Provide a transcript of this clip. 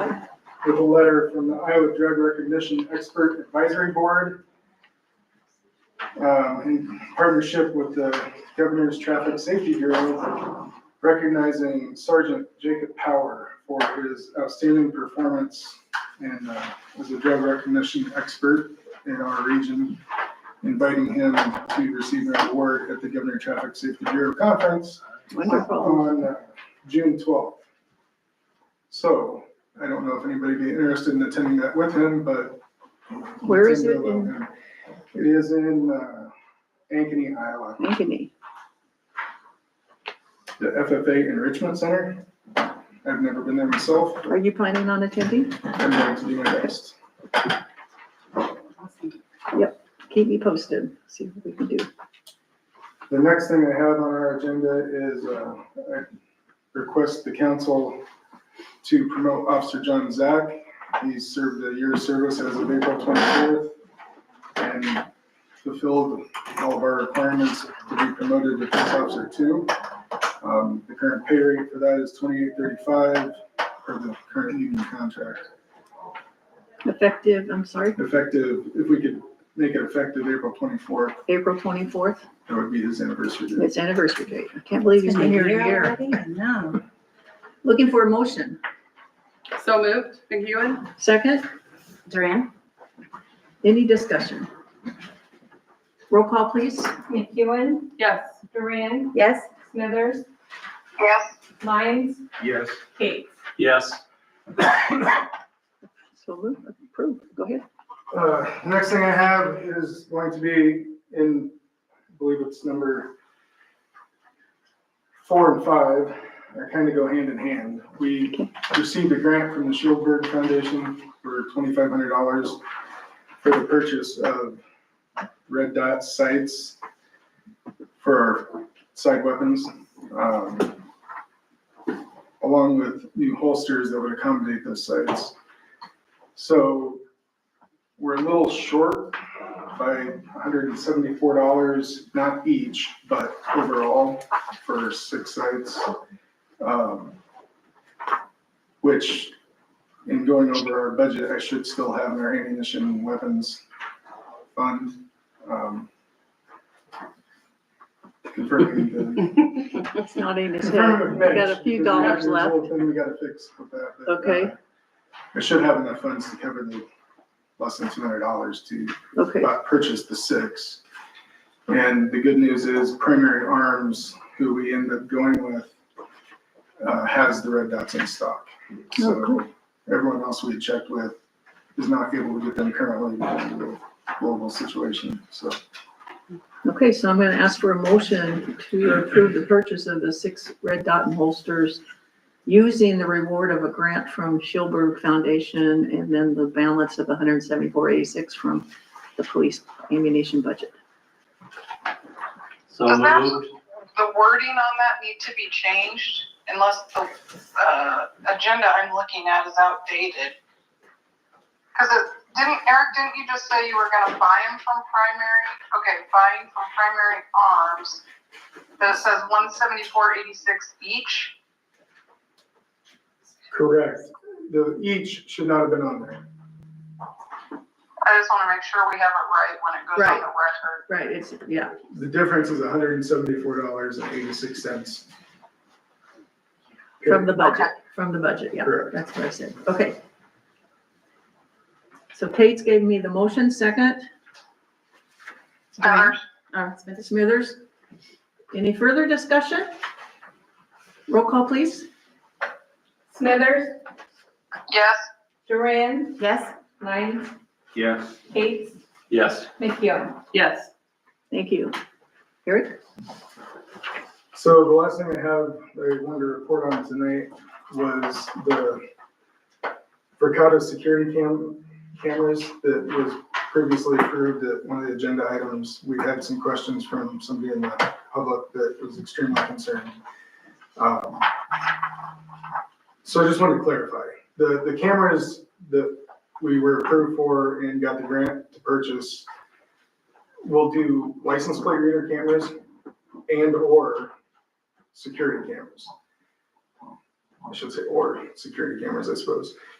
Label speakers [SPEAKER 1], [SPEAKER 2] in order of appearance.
[SPEAKER 1] with a letter from the Iowa Drug Recognition Expert Advisory Board um, in partnership with the Governor's Traffic Safety Bureau, recognizing Sergeant Jacob Power for his outstanding performance and uh, as a drug recognition expert in our region, inviting him to receive an award at the Governor Traffic Safety Bureau Conference
[SPEAKER 2] Wonderful.
[SPEAKER 1] on uh, June twelfth. So I don't know if anybody would be interested in attending that with him, but.
[SPEAKER 2] Where is
[SPEAKER 1] it's
[SPEAKER 2] it in
[SPEAKER 1] Villanova. It is in, uh, Ankeny, Iowa,
[SPEAKER 2] Ankeny?
[SPEAKER 1] the FFA Enrichment Center. I've never been there myself, but
[SPEAKER 2] Are you planning on attending?
[SPEAKER 1] I'm going to do my best.
[SPEAKER 2] Keep me posted, see what we can do.
[SPEAKER 1] The next thing I have on our agenda is, uh, I request the council to promote Officer John Zach. He served a year of service as of April twenty-fourth and fulfilled all of our requirements to be promoted to police officer two. Um, the current pay rate for that is twenty-eight thirty-five for the current union contract.
[SPEAKER 2] Effective, I'm sorry,
[SPEAKER 1] Effective, if we could make it effective April twenty-fourth,
[SPEAKER 2] April twenty-fourth,
[SPEAKER 1] that would be his anniversary date.
[SPEAKER 2] it's anniversary date. I can't believe he's been here a year.
[SPEAKER 3] No.
[SPEAKER 2] Looking for a motion.
[SPEAKER 4] So moved, McEwen?
[SPEAKER 2] Second,
[SPEAKER 3] Duran?
[SPEAKER 2] any discussion? Roll call, please.
[SPEAKER 5] McEwen,
[SPEAKER 4] Yes.
[SPEAKER 5] Duran,
[SPEAKER 3] Yes.
[SPEAKER 5] Smithers,
[SPEAKER 4] Yes.
[SPEAKER 5] Lyons,
[SPEAKER 6] Yes.
[SPEAKER 5] Kate.
[SPEAKER 6] Yes.
[SPEAKER 2] So moved, approved, go ahead.
[SPEAKER 1] Uh, next thing I have is going to be in, I believe it's number four and five, are kind of go hand in hand. We received a grant from the Shieldberg Foundation for twenty-five hundred dollars for the purchase of red dot sights for our side weapons, um, along with new holsters that would accommodate those sights. So we're a little short by hundred and seventy-four dollars, not each, but overall for six sites. Um, Which, in going over our budget, I should still have in our ammunition and weapons fund. um, Confirming the.
[SPEAKER 2] It's not in his head.
[SPEAKER 1] confirming
[SPEAKER 2] We
[SPEAKER 1] with
[SPEAKER 2] got a
[SPEAKER 1] Mitch,
[SPEAKER 2] few
[SPEAKER 1] because we have-
[SPEAKER 2] dollars
[SPEAKER 1] there's a
[SPEAKER 2] left.
[SPEAKER 1] little Thing we gotta fix with that. but, uh,
[SPEAKER 2] Okay.
[SPEAKER 1] I should have enough funds to cover the less than two hundred dollars to
[SPEAKER 2] Okay,
[SPEAKER 1] uh, purchased the six. And the good news is Primary Arms, who we end up going with, uh, has the red dots in stock.
[SPEAKER 2] Oh, cool.
[SPEAKER 1] So everyone else we checked with is not able to get them currently because of the global situation, so.
[SPEAKER 2] okay, so I'm gonna ask for a motion to approve the purchase of the six red dot and holsters using the reward of a grant from Schilberg Foundation and then the balance of hundred and seventy-four eighty-six from the police ammunition budget.
[SPEAKER 6] So
[SPEAKER 7] Does that-
[SPEAKER 6] moved.
[SPEAKER 7] the wording on that need to be changed unless the, uh, agenda I'm looking at is outdated. Cause it, didn't, Eric, didn't you just say you were gonna buy them from primary, okay, buying from primary arms? That it says one seventy-four eighty-six each?
[SPEAKER 1] Correct. The each should not have been on there.
[SPEAKER 7] I just wanna make sure we have it right when it goes
[SPEAKER 2] Right.
[SPEAKER 7] on the record.
[SPEAKER 2] Right, it's, yeah,
[SPEAKER 1] The difference is hundred and seventy-four dollars and eighty-six cents.
[SPEAKER 2] from the budget, from the budget, yeah,
[SPEAKER 1] Correct.
[SPEAKER 2] that's what I said, okay. So Kate's gave me the motion, second,
[SPEAKER 7] Smithers,
[SPEAKER 2] uh, Smithers. Any further discussion? Roll call, please.
[SPEAKER 5] Smithers,
[SPEAKER 7] yes,
[SPEAKER 5] Duran,
[SPEAKER 3] Yes.
[SPEAKER 5] Lyons,
[SPEAKER 6] Yes.
[SPEAKER 5] Kate,
[SPEAKER 6] Yes.
[SPEAKER 5] McEwen.
[SPEAKER 4] Yes.
[SPEAKER 2] Thank you. Eric?
[SPEAKER 1] So the last thing I have, that I wanted to report on tonight was the Verkado security cam, cameras that was previously approved at one of the agenda items. We had some questions from somebody in the public that was extremely concerned. Um, So I just wanted to clarify, the, the cameras that we were approved for and got the grant to purchase will do license plate reader cameras and/or security cameras. I should say, or security cameras, I suppose.